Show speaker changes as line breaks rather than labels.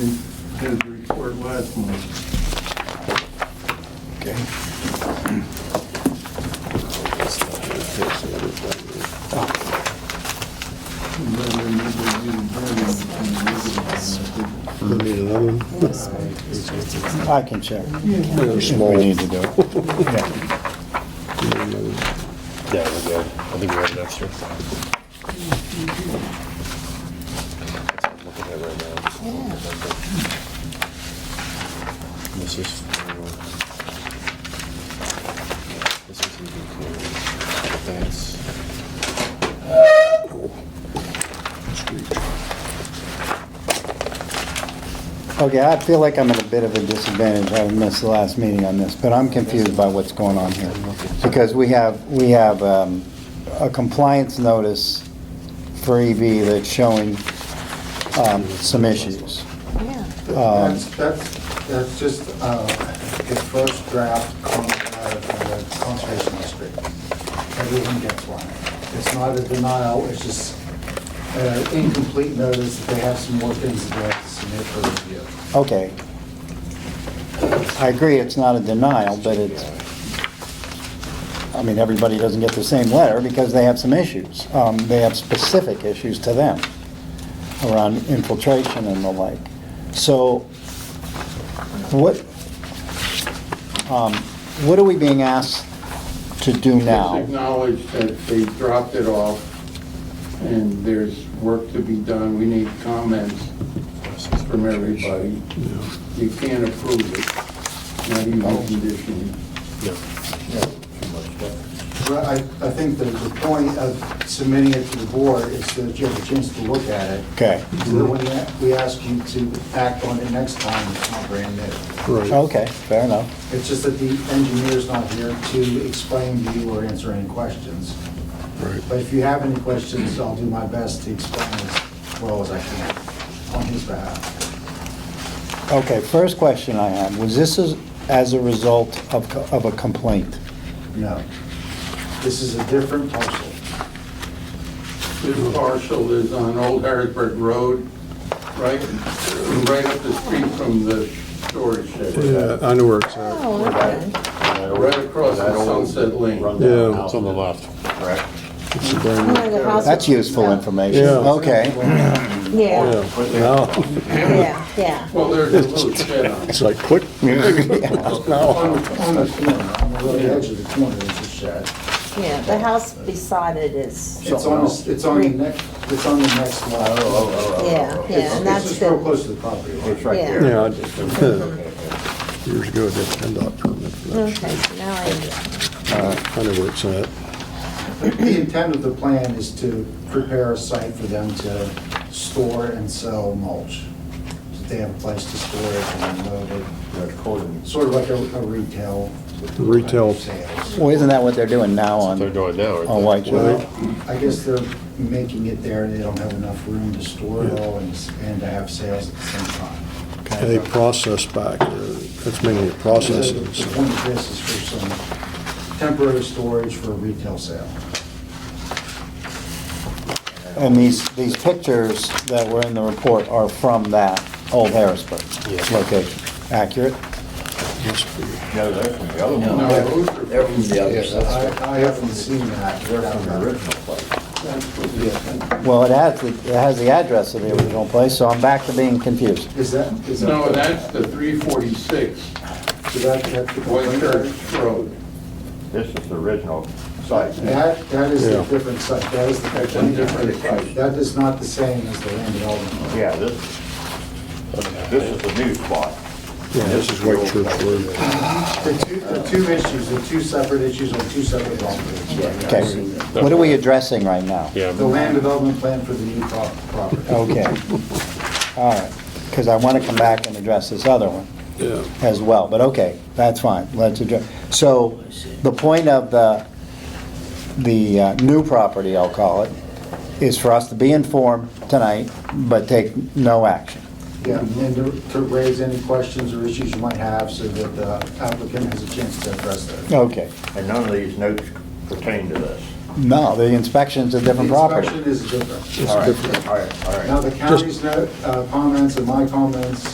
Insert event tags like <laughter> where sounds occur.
his report last month.
Okay.
And then I remember you burning it in the river.
You Need another one?
I can check.
They're
If
small.
we need to
<laughs>
do it. Yeah,
Yeah, we're good. I think we have an extra. That's what I'm looking at right now. This is. This is even clearer. That's.
Okay, I feel like I'm at a bit of a disadvantage, having missed the last meeting on this, but I'm confused by what's going on here. Because we have, we have um, a compliance notice for EB that's showing um, some issues.
Yeah.
Um,
That's, that's, that's just uh, the first draft con- uh, uh, conservation district. Everyone gets one. It's not a denial, it's just uh, incomplete notice that they have some more things that they have to submit for review.
Okay. I agree, it's not a denial, but it's, I mean, everybody doesn't get the same letter because they have some issues. Um, They have specific issues to them around infiltration and the like. So what, um, what are we being asked to do
Just
now?
acknowledge that they dropped it off and there's work to be done. We need comments from everybody. You can't approve it, not even conditionally.
But I, I think that the point of submitting it to the board is so that you have a chance to look at it.
Okay,
So that when you- we ask you to act on it next time, it's not brand new.
Right.
okay, fair enough.
It's just that the engineer's not here to explain to you or answer any questions.
Right.
But if you have any questions, I'll do my best to explain as well as I can on his behalf.
Okay, first question I had, was this as- as a result of co- of a complaint?
No. This is a different parcel.
This parcel is on Old Harrisburg Road, right, right up the street from the storage shed,
Yeah, I know where it's at.
Oh, okay.
right across the
That old
Sunset Lane.
rundown
Yeah,
house
it's on the
is
left.
Correct.
It's a brand
Where the house-
That's useful information.
Yeah.
Okay.
new-
Yeah,
yeah. Now,
yeah, yeah.
Well, there's a little shed
<laughs>
on it.
it's like, quick.
On the on the corner, on the really edge of the corner is a shed.
Yeah, the house beside it is,
It's on, the- it's on the next, it's on the next lot. Oh,
yeah, yeah, and
It's
that's
just real
the,
close to the property line.
yeah.
Yeah, <laughs> I just- years ago, I did a PennDOT permit for that.
Okay, so now I,
I know where it's at.
The intent of the plan is to prepare a site for them to store and sell mulch. So they have a place to store it and load it, sort of like a a retail.
Retail.
Sales.
Well, isn't that what they're doing now
They're
on,
doing now,
on
aren't
White Shore?
Well, I guess they're making it there, they don't have enough room to store it all and s- and to have sales at the same time.
They process back, uh, there. that's mainly a process.
So The the point of this is for some temporary storage for a retail sale.
And these, these pictures that were in the report are from that old Harrisburg
Yeah.
location. Accurate?
No, they're from the other
No,
one.
those are-
They're from the other side.
I I haven't seen that.
They're from the original place.
that's what we have.
Well, it has, the- it has the address of the original place, so I'm back to being confused.
Is that, is that?
No, that's the 346
Did that have to go
White
in there?
Church Road.
This is the original site.
That, that is a
Yeah.
different site, that is the,
That's a different site.
that is not the same as the land development.
Yeah, this, this is the new spot.
Yeah, this is White Church Road.
The two, the two issues, the two separate issues on two separate properties.
Okay. What are we addressing right now?
they? Yeah.
The land development plan for the new prop- property.
<laughs>
Okay. All right. Because I want to come back and address this other one.
Yeah.
as well, but okay, that's fine, let's address. So, the point of the, the uh, new property, I'll call it, is for us to be informed tonight, but take no action.
Yeah, and to- to raise any questions or issues you might have so that the applicant has a chance to address those.
Okay,
And none of these notes pertain to this.
no, the inspection's a different
The
property.
inspection is different.
All right, all right, all right.
Now, the county's note, uh, comments and my comments